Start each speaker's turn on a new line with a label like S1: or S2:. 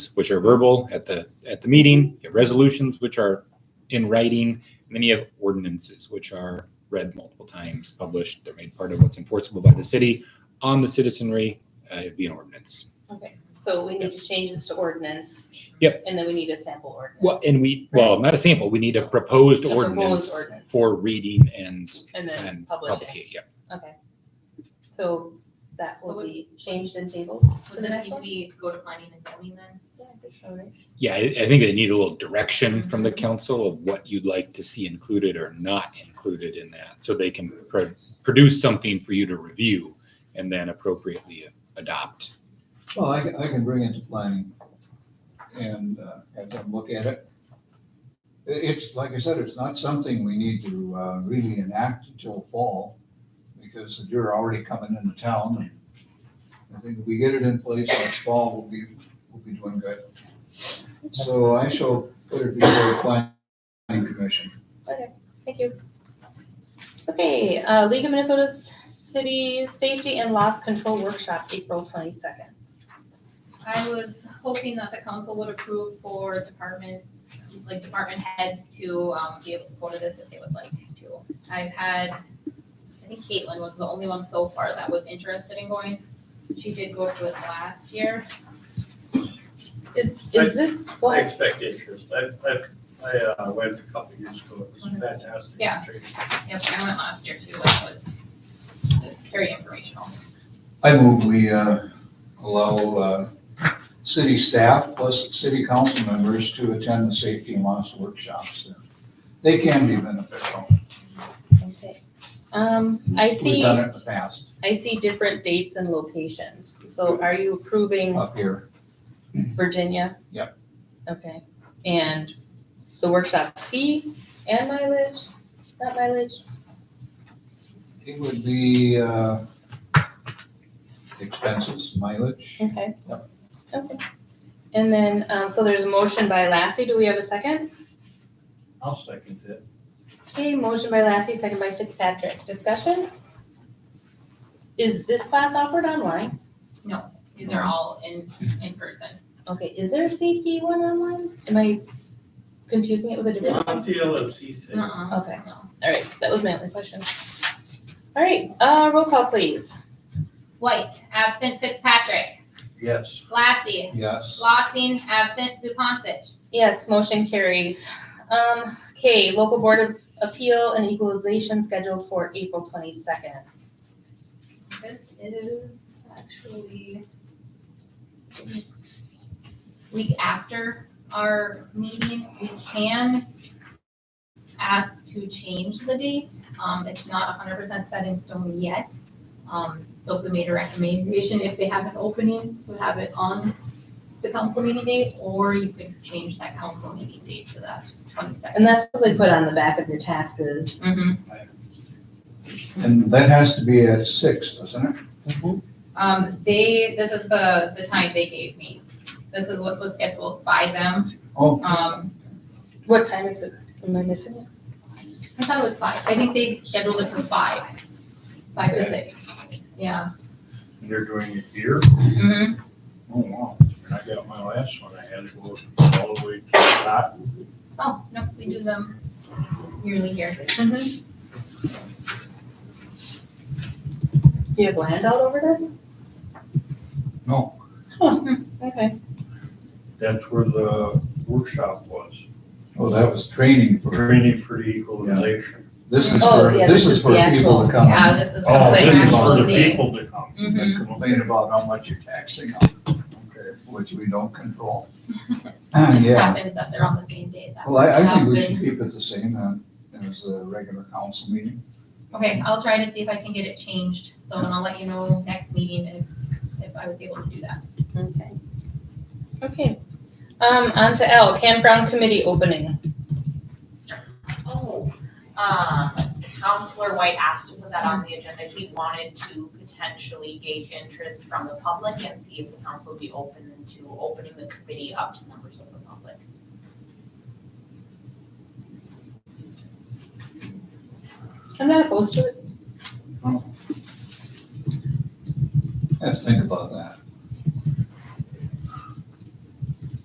S1: which are verbal at the, at the meeting. You have resolutions, which are in writing. And then you have ordinances, which are read multiple times, published. They're made part of what's enforceable by the city on the citizenry. Uh, it'd be an ordinance.
S2: Okay, so we need to change this to ordinance.
S1: Yep.
S2: And then we need a sample ordinance.
S1: Well, and we, well, not a sample. We need a proposed
S2: A proposed
S1: ordinance
S2: ordinance.
S1: for reading and,
S2: And then
S1: and
S2: publish it.
S1: publication. Yeah.
S2: Okay. So that
S3: So
S2: will
S3: would-
S2: be changed and tabled.
S3: Would this need to be go to planning and zoning then?
S2: Alright.
S1: Yeah, I, I think they need a little direction from the council of what you'd like to see included or not included in that. So they can pro- produce something for you to review and then appropriately adopt.
S4: Well, I, can- I can bring it to planning and uh, have them look at it. I- It's, like I said, it's not something we need to uh, really enact until fall because you're already coming into town. and I think if we get it in place next fall, we'll be, we'll be doing good. So I shall put it before the planning commission.
S2: Thank you. Okay, uh, League of Minnesota Cities Safety and Loss Control Workshop, April twenty-second.
S3: I was hoping that the council would approve for departments, like department heads to um be able to go to this if they would like to. I've had, I think Caitlin was the only one so far that was interested in going. She did go to it last year.
S2: Is, is this,
S5: I
S2: what,
S5: expect interest. I, I, I uh, went a couple of years ago. It was fantastic.
S3: Yeah. Yep, I went last year too, and it was very informational.
S4: I move we uh, allow uh, city staff plus city council members to attend the safety and loss workshops. They can be beneficial.
S2: okay. Um, I
S4: We've
S2: see,
S4: done it in the past
S2: I see different dates and locations. So are you approving
S4: up here.
S2: Virginia?
S4: Uh, Yep.
S2: Okay, and the workshop fee and mileage, not mileage?
S4: It would be uh, expenses, mileage.
S2: Okay.
S4: Yep.
S2: Okay. And then, um, so there's a motion by Lassie. Do we have a second?
S5: I'll second that.
S2: Okay, motion by Lassie, second by Fitzpatrick. Discussion? Is this class offered online?
S3: These are all in in person.
S2: Okay, is there a safety one online? Am I confusing it with a different one?
S5: Not the LMC thing.
S3: Uh-uh.
S2: Okay.
S3: No.
S2: All right, that was my only question. All right, uh, roll call, please.
S3: White, absent Fitzpatrick,
S5: Yes.
S3: Lassie,
S4: Yes.
S3: Lossing, absent Zupansich.
S2: Yes, motion carries. Um, okay, local board of appeal and equalization scheduled for April twenty-second.
S3: This is actually week after our meeting. We can ask to change the date. Um, it's not hundred percent set in stone yet. Um, so if we made a recommendation, if they have an opening, to have it on the council meeting date, or you could change that council meeting date to that
S2: And
S3: twenty-second.
S2: that's what they put on the back of your taxes.
S3: Mm-hmm.
S4: And that has to be at six, doesn't it?
S3: Um, they, this is the, the time they gave me. This is what was scheduled by them.
S4: Oh,
S3: Um,
S2: What time is it? Am I missing it?
S3: I thought it was five. I think they scheduled it for five, five to six. Yeah.
S5: You're doing it here?
S3: Mm-hmm.
S5: Oh, wow. When I got my last one. I had to go all the way to the top.
S3: Oh, no, we do them yearly here.
S2: Mm-hmm. Do you have land out over there?
S5: No,
S2: Okay.
S5: that's where the workshop was.
S4: oh, that was training for,
S5: Training for the equalization.
S4: this is
S2: Oh,
S4: for,
S2: yeah,
S4: this is for
S2: the actual-
S4: people to come
S3: Yeah,
S4: and
S3: this is
S5: Oh,
S3: the
S5: this is for
S3: actual
S5: the
S3: date.
S5: people to come.
S3: Mhm.
S4: complain about how much you're taxing them,
S5: Okay.
S4: which we don't control.
S3: It Just
S4: Ah, Yeah.
S3: happens that they're on the same day. That
S4: Well, I, I think we
S3: happened.
S4: should keep it the same uh, as a regular council meeting.
S3: Okay, I'll try to see if I can get it changed. So and I'll let you know next meeting if, if I was able to do that.
S2: Okay. Okay. Um, on to L, campground committee opening.
S6: Oh, um, Counselor White asked to put that on the agenda. He wanted to potentially gauge interest from the public and see if the council would be open to opening the committee up to members of the public.
S2: I'm not opposed to it.
S4: Let's think about that.